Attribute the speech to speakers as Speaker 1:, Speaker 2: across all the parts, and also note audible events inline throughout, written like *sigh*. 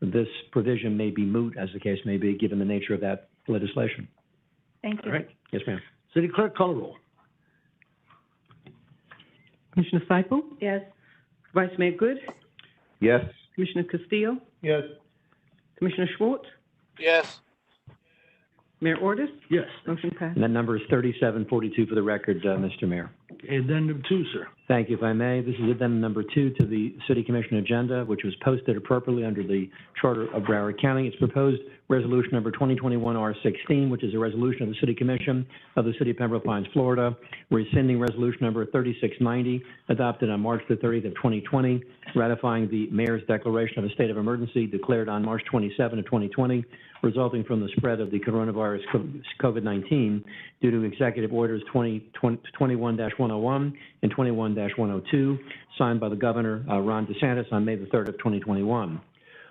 Speaker 1: this provision may be moot, as the case may be, given the nature of that legislation.
Speaker 2: Thank
Speaker 3: All
Speaker 2: you.
Speaker 3: right.
Speaker 1: Yes, ma'am.
Speaker 3: City Clerk, call the roll.
Speaker 4: Commissioner Cyple,
Speaker 2: Yes.
Speaker 4: Vice Mayor Good,
Speaker 5: Yes.
Speaker 4: Commissioner Castillo,
Speaker 3: Yes.
Speaker 4: Commissioner Schwartz,
Speaker 6: yes,
Speaker 4: Mayor Ordus,
Speaker 3: Yes.
Speaker 4: motion passed.
Speaker 1: And that number is 3742 for the record, uh, Mr. Mayor.
Speaker 3: Addendum two, sir.
Speaker 1: Thank you, if I may. This is addendum number two to the City Commission agenda, which was posted appropriately under the Charter of Broward County. It's proposed resolution number 2021-R16, which is a resolution of the City Commission of the City of Pembroke Pines, Florida, rescinding resolution number 3690, adopted on March the 30th of 2020, ratifying the mayor's declaration of a state of emergency declared on March 27 of 2020, resulting from the spread of the coronavirus COVID-19 due to Executive Orders 20 21-101 and 21-102, signed by the Governor, uh, Ron DeSantis, on May the 3rd of 2021,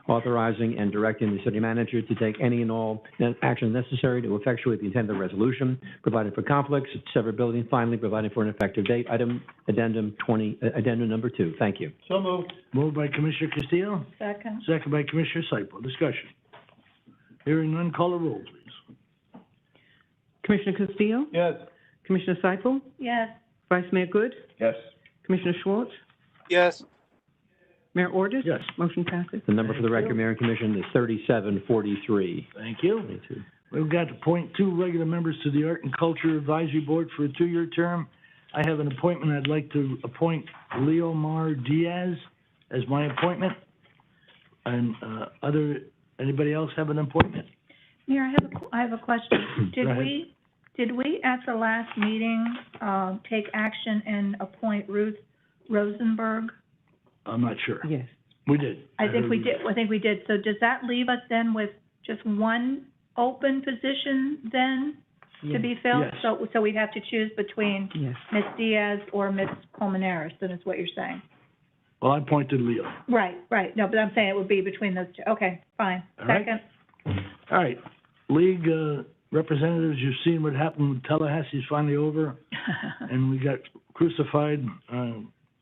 Speaker 1: authorizing and directing the city manager to take any and all ne- action necessary to effectuate the intent of the resolution, providing for conflicts, severability, and finally, providing for an effective date. Item, addendum 20, uh, addendum number two. Thank you.
Speaker 3: So moved. Moved by Commissioner Castillo,
Speaker 2: Second.
Speaker 3: second by Commissioner Cyple. Discussion. Hearing none, call the roll, please.
Speaker 4: Commissioner Castillo,
Speaker 3: Yes.
Speaker 4: Commissioner Cyple,
Speaker 2: Yes.
Speaker 4: Vice Mayor Good,
Speaker 5: Yes.
Speaker 4: Commissioner Schwartz,
Speaker 6: yes,
Speaker 4: Mayor Ordus,
Speaker 3: Yes.
Speaker 4: motion passes.
Speaker 1: The number for the
Speaker 3: Thank you.
Speaker 1: record, Mayor and Commission, is 3743.
Speaker 3: Thank you. We've got to appoint two regular members to the Art and Culture Advisory Board for a two-year term. I have an appointment. I'd like to appoint Leo Mar Diaz as my appointment. And, uh, other, anybody else have an appointment?
Speaker 2: Mayor, I have a, qu- I have a question.
Speaker 3: *clears throat* Go
Speaker 2: Did
Speaker 3: ahead.
Speaker 2: we, did we at the last meeting, uh, take action and appoint Ruth Rosenberg?
Speaker 3: I'm not sure.
Speaker 4: Yes.
Speaker 3: We did.
Speaker 2: I think we did, I think we did. So does that leave us then with just one open position then to be filled?
Speaker 3: Yes.
Speaker 2: So, so we'd have to choose between
Speaker 4: Yes.
Speaker 2: Ms. Diaz or Ms. Colmenares, then is what you're saying?
Speaker 3: Well, I pointed Leo.
Speaker 2: Right, right. No, but I'm saying it would be between those two. Okay, fine.
Speaker 3: All right.
Speaker 2: Second.
Speaker 3: All right, league uh, representatives, you've seen what happened with Tallahassee's finally over,
Speaker 2: *laughs*
Speaker 3: and we got crucified. Uh,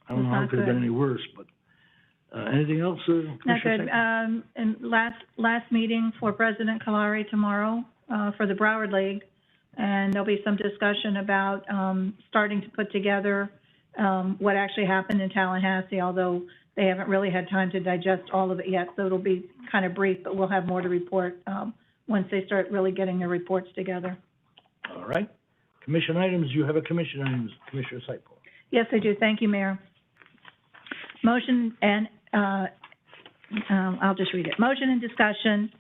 Speaker 3: I don't know how it could have been any worse, but, uh, anything else, uh, Commissioner?
Speaker 2: Not good.
Speaker 3: Sackler?
Speaker 2: Um, and last, last meeting for President Kalari tomorrow, uh, for the Broward League. And there'll be some discussion about, um, starting to put together, um, what actually happened in Tallahassee, although they haven't really had time to digest all of it yet, so it'll be kind of brief, but we'll have more to report, um, once they start really getting their reports together.
Speaker 3: All right, commission items, you have a commission items, Commissioner Cyple.
Speaker 2: Yes, I do. Thank you, Mayor. Motion and, uh, um, I'll just read it. Motion and discussion,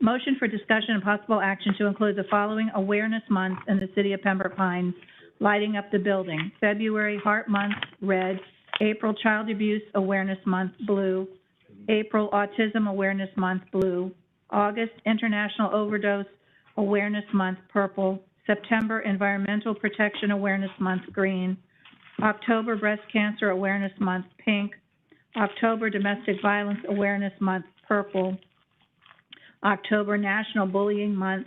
Speaker 2: motion for discussion and possible action to include the following awareness months in the city of Pembroke Pines, lighting up the building. February Heart Month, red. April Child Abuse Awareness Month, blue. April Autism Awareness Month, blue. August International Overdose Awareness Month, purple. September Environmental Protection Awareness Month, green. October Breast Cancer Awareness Month, pink. October Domestic Violence Awareness Month, purple. October National Bullying Month,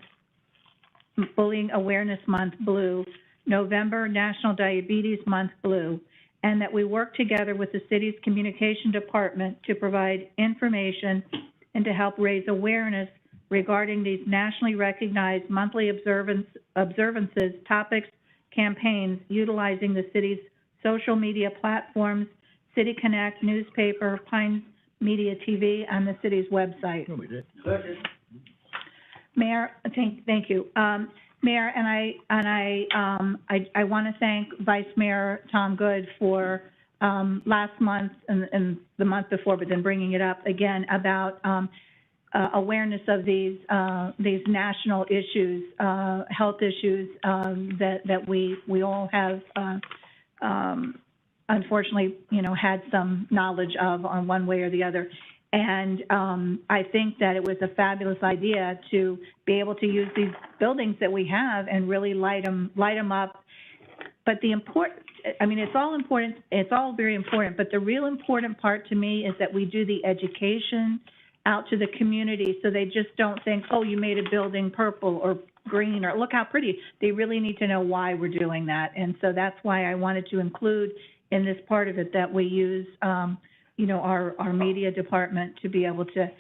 Speaker 2: Bullying Awareness Month, blue. November National Diabetes Month, blue. And that we work together with the city's communication department to provide information and to help raise awareness regarding these nationally recognized monthly observance, observances, topics, campaigns utilizing the city's social media platforms, City Connect newspaper, Pines Media TV, and the city's website.
Speaker 3: No, we did.
Speaker 2: Mayor, thank, thank you. Um, Mayor, and I, and I, um, I, I want to thank Vice Mayor Tom Good for, um, last month and, and the month before, but then bringing it up again about, um, uh, awareness of these, uh, these national issues, uh, health issues, um, that, that we, we all have, uh, um, unfortunately, you know, had some knowledge of on one way or the other. And um, I think that it was a fabulous idea to be able to use these buildings that we have and really light them, up. But the important, I mean, it's all important, it's all very important, but the real important part to me is that we do the education out to the community so they just don't think, oh, you made a building purple or green or look how pretty. They really need to know why we're doing that. And so that's why I wanted to include in this part of it that we use, um, you know, our, our media department to be able to